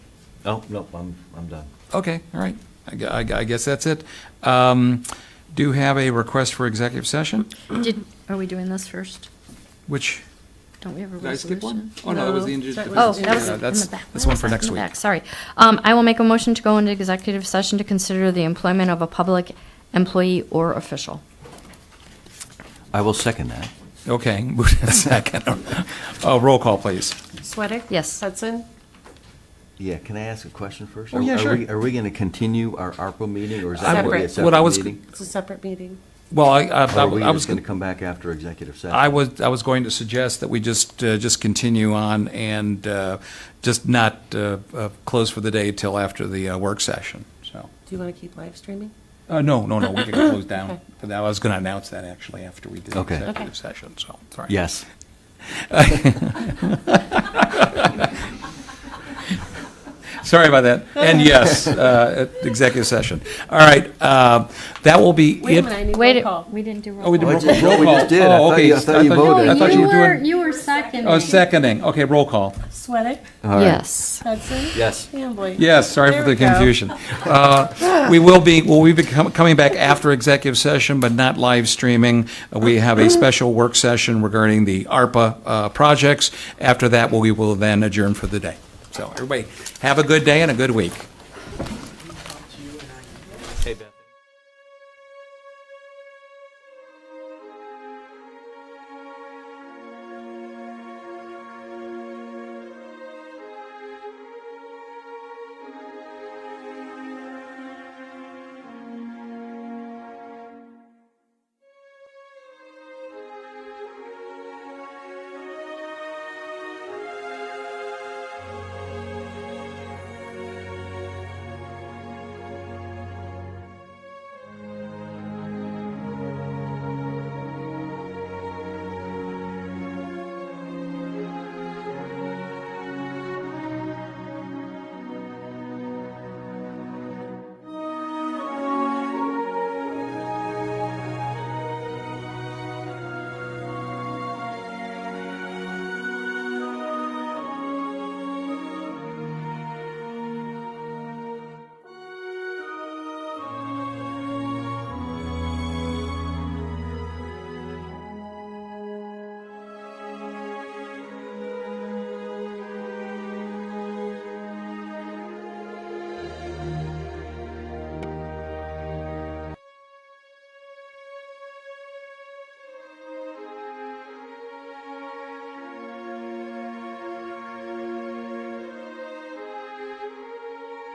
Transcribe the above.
Oh, no, I'm, I'm done. Okay, all right. I gu- I gu- I guess that's it. Um, Do have a request for executive session, Did, are we doing this first? which, Don't we have a Did I resolution? skip one? Oh, no, that was the injured That was- defense. Oh, that was Yeah, in the that's- back. that's one for Why was that next in the week. back? Sorry. Um, I will make a motion to go into executive session to consider the employment of a public employee or official. I will second that. okay, moved in second. Uh, Roll call, please. Sweattick? Yes. Hudson? Yeah, can I ask a question first? Oh, Are- yeah, are sure. we- Are we going to continue our ARPA meeting, or is that I- going to be a Separate. what I separate was- meeting? It's a separate meeting. Well, I, I Or I are we was. just going to come back after executive session? I was, I was going to suggest that we just, uh, just continue on and uh, just not uh, uh, close for the day till after the uh, work session, so. Do you want to keep live streaming? Uh, No, no, no, we can close down. Okay. But I was going to announce that actually after we did the Okay. executive session, so, sorry. Yes. Sorry about that. And yes, uh, executive session. All right, uh, that will be it. Wait a minute, I need Wait, roll it- call. we didn't do roll Oh, we did Oh, I roll call. didn't know roll we call. just did. I Oh, thought okay. you- I thought you thought- voted. I thought you were doing, you were seconding. oh, seconding. Okay, roll call. Sweattick? Yes. Hudson? Yes. Hambley? Yes, sorry There for the we go. confusion. Uh, We will be, well, we'll be com- coming back after executive session, but not live streaming. We have a special work session regarding the ARPA uh, projects. After that, we will then adjourn for the day. So everybody, have a good day and a good week.